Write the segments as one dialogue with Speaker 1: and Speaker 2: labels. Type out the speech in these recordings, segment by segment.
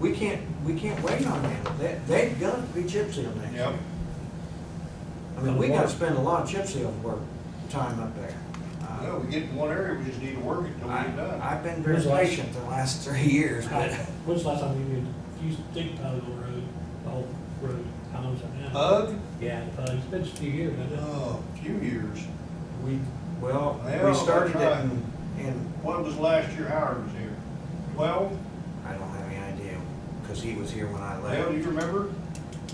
Speaker 1: we can't, we can't wait on that. That, that got to be chip sealed next year.
Speaker 2: Yep.
Speaker 1: I mean, we gotta spend a lot of chip seal work, time up there. Uh,
Speaker 2: No, we get in one area, we just need to work it till we
Speaker 1: I,
Speaker 2: get done.
Speaker 1: I've been very
Speaker 3: Who's last?
Speaker 1: patient the last three years, but
Speaker 3: When's the last time you used, used dig pile the road, the whole road, how long's that now?
Speaker 2: Hug?
Speaker 3: Yeah, the pile. it's been just a few years, hasn't it?
Speaker 2: Oh, few years.
Speaker 1: we, well,
Speaker 2: Yeah,
Speaker 1: we started it
Speaker 2: that's right.
Speaker 1: in, in,
Speaker 2: When was last year Howard was here? Twelve?
Speaker 1: I don't have any idea, cause he was here when I
Speaker 2: Dale, do
Speaker 1: left.
Speaker 2: you remember?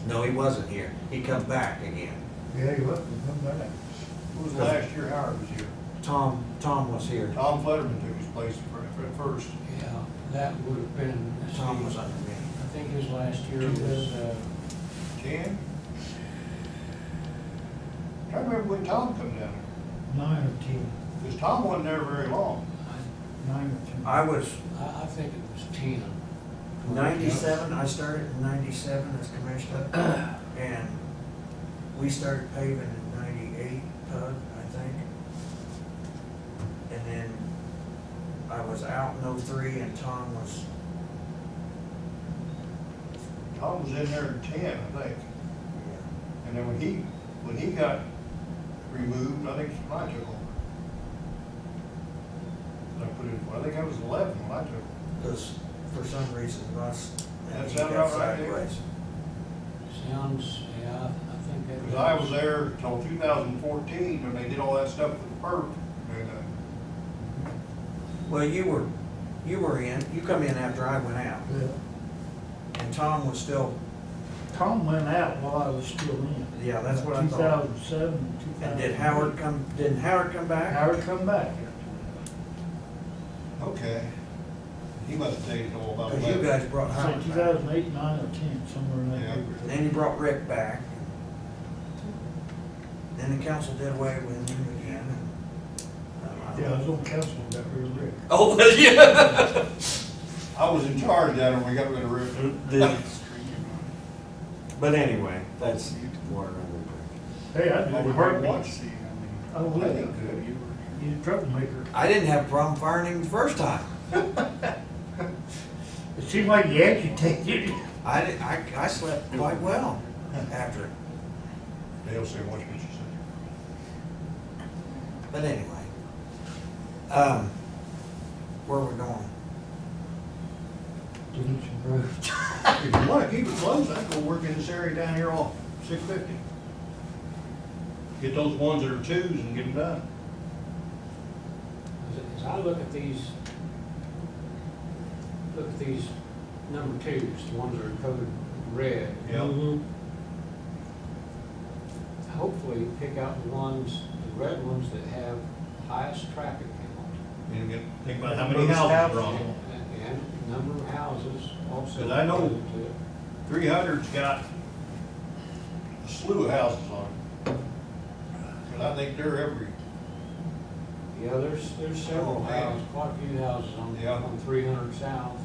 Speaker 1: No, he wasn't here. He come back again.
Speaker 4: Yeah, you look, you come back.
Speaker 2: When was the last year Howard was here?
Speaker 1: Tom, Tom was here.
Speaker 2: Tom Fetterman took his place for- for- at first.
Speaker 5: Yeah, that would have been, let's see,
Speaker 1: Tom was
Speaker 5: I
Speaker 1: under me.
Speaker 5: think his last year was, uh,
Speaker 2: Jan? I can't remember when Tom come down
Speaker 4: Nine or ten,
Speaker 2: there, because Tom wasn't there very long.
Speaker 4: nine or ten.
Speaker 1: I was
Speaker 5: I, I think it was ten.
Speaker 1: ninety-seven, I started in ninety-seven as commissioner, and we started paving in ninety-eight, Tug, I think. And then I was out in oh-three, and Tom was,
Speaker 2: Tom was in there in ten, I think.
Speaker 1: yeah,
Speaker 2: And then when he, when he got removed, I think I took over. I put in, I think I was eleven when I took over.
Speaker 1: because for some reason, Russ, and
Speaker 2: That
Speaker 1: he
Speaker 2: sound
Speaker 1: got
Speaker 2: about right to you?
Speaker 1: sideways.
Speaker 5: Sounds, yeah, I think that.
Speaker 2: Because I was there till two thousand fourteen, when they did all that stuff with the perp. And, uh,
Speaker 1: Well, you were, you were in, you come in after I went out,
Speaker 4: Yeah.
Speaker 1: and Tom was still,
Speaker 4: Tom went out while I was still in.
Speaker 1: yeah, that's what I
Speaker 4: Two
Speaker 1: thought.
Speaker 4: thousand seven, two thousand.
Speaker 1: And did Howard come, didn't Howard come back?
Speaker 4: Howard come back.
Speaker 2: Okay. He must have taken all about
Speaker 1: Because you
Speaker 2: eleven.
Speaker 1: guys brought
Speaker 4: So
Speaker 1: Howard
Speaker 4: two
Speaker 1: back.
Speaker 4: thousand eight, nine, or ten, somewhere in that
Speaker 2: Yeah.
Speaker 1: And
Speaker 4: neighborhood.
Speaker 1: Uh-huh. then you brought Rick back. Then the council did away with him again. and, um, I
Speaker 4: Yeah, I
Speaker 1: don't-
Speaker 4: was on council, when that real Rick.
Speaker 1: Oh, well, yeah.
Speaker 2: I was in charge down there when we got rid of Rick.
Speaker 1: But anyway, that's water under the bridge.
Speaker 4: Hey, I
Speaker 2: I
Speaker 4: did
Speaker 2: would
Speaker 4: it
Speaker 2: hurt
Speaker 4: hurt me.
Speaker 2: once. I
Speaker 4: I would.
Speaker 2: think good. You were-
Speaker 4: You troublemaker.
Speaker 1: I didn't have a problem firing him the first time.
Speaker 4: It seemed like you agitated.
Speaker 1: I, did- I, I slept quite well after it.
Speaker 2: uh, Dale said, watch what you say.
Speaker 1: But anyway, um, where we're going?
Speaker 5: Didn't improve.
Speaker 2: If you wanna keep it closed, I'd go work in this area down here off six fifty. Get those ones that are twos and get them done.
Speaker 5: As- As I look at these, look at these number twos, the ones that are coded red, hopefully pick out the ones, the red ones that have highest traffic count.
Speaker 2: And get, think about
Speaker 4: Most houses.
Speaker 5: And, and number of houses also.
Speaker 2: Because I know-
Speaker 5: related to it.
Speaker 2: Three hundred's got a slew of houses on it. And I think they're every,
Speaker 5: Yeah, there's, there's several
Speaker 2: Yeah.
Speaker 5: houses, quite a few houses on,
Speaker 2: Yeah.
Speaker 5: on three hundred south.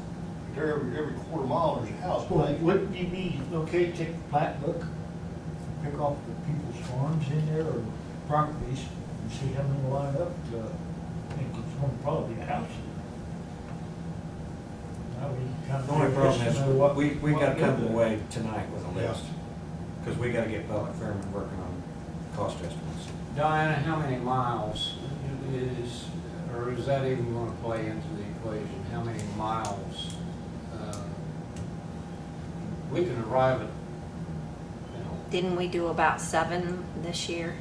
Speaker 2: they're every, every quarter mile there's a house.
Speaker 4: Well, wouldn't you be okay to take the plat book, pick off the people's farms in there or properties and see how many line up? uh, I think it's gonna probably be a house. Now we kind of-
Speaker 1: The only problem is,
Speaker 4: Estimate what-
Speaker 1: we, we
Speaker 4: what
Speaker 1: gotta come
Speaker 4: do.
Speaker 1: away tonight with a
Speaker 2: Yeah.
Speaker 1: list, because we gotta get Pellet Fairman working on cost estimates.
Speaker 5: Diana, how many miles is, or is that even gonna play into the equation? How many miles? uh, We can arrive at, you know,
Speaker 6: Didn't we do about seven this year?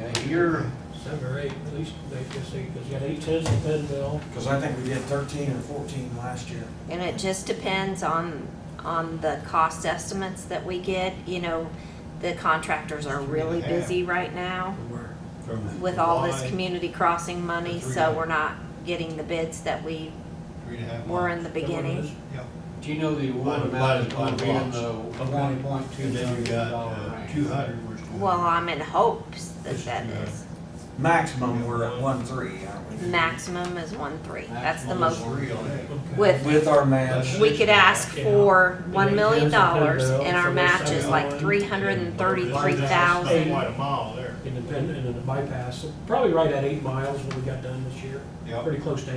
Speaker 5: yeah, you're,
Speaker 3: Seven or eight, at least, they just say, because you got eight tons in Bellville.
Speaker 1: Because I think we did thirteen or fourteen last year.
Speaker 6: And it just depends on, on the cost estimates that we get, you know, the contractors are really
Speaker 2: Yeah.
Speaker 6: busy right now
Speaker 2: From
Speaker 6: with all this
Speaker 2: July,
Speaker 6: community crossing money,
Speaker 2: Three
Speaker 6: so
Speaker 2: days.
Speaker 6: we're not getting the bids that we
Speaker 2: Three and a half
Speaker 6: were
Speaker 2: miles.
Speaker 6: in the beginning.
Speaker 2: Yeah.
Speaker 5: do you know the award
Speaker 2: Divided-
Speaker 5: amount is gonna
Speaker 2: divided
Speaker 5: be
Speaker 2: by
Speaker 5: in the
Speaker 2: lots. Okay.
Speaker 5: one point two
Speaker 2: And then
Speaker 5: million
Speaker 2: you got,
Speaker 5: dollar
Speaker 2: uh, two
Speaker 5: range?
Speaker 2: hundred, where's? the-
Speaker 6: Well, I'm in hopes that
Speaker 2: This
Speaker 6: that
Speaker 2: is good.
Speaker 6: is,
Speaker 1: Maximum, we're at one-three, aren't we?
Speaker 6: maximum is one three, that's the
Speaker 2: Maximum is
Speaker 6: most.
Speaker 2: Three on it.
Speaker 6: With,
Speaker 1: With our match,
Speaker 6: we could ask
Speaker 3: Yeah.
Speaker 6: for
Speaker 3: And
Speaker 6: one
Speaker 3: it
Speaker 6: million
Speaker 3: depends on
Speaker 6: dollars
Speaker 3: Bellville,
Speaker 6: and our
Speaker 3: so we're
Speaker 6: match is
Speaker 3: saying
Speaker 6: like
Speaker 3: one.
Speaker 6: three hundred and thirty-three thousand.
Speaker 2: Quite a mile there.
Speaker 3: Independent, and then the bypass, so probably right at eight miles when we got done this year.
Speaker 2: Yep.
Speaker 3: Pretty close to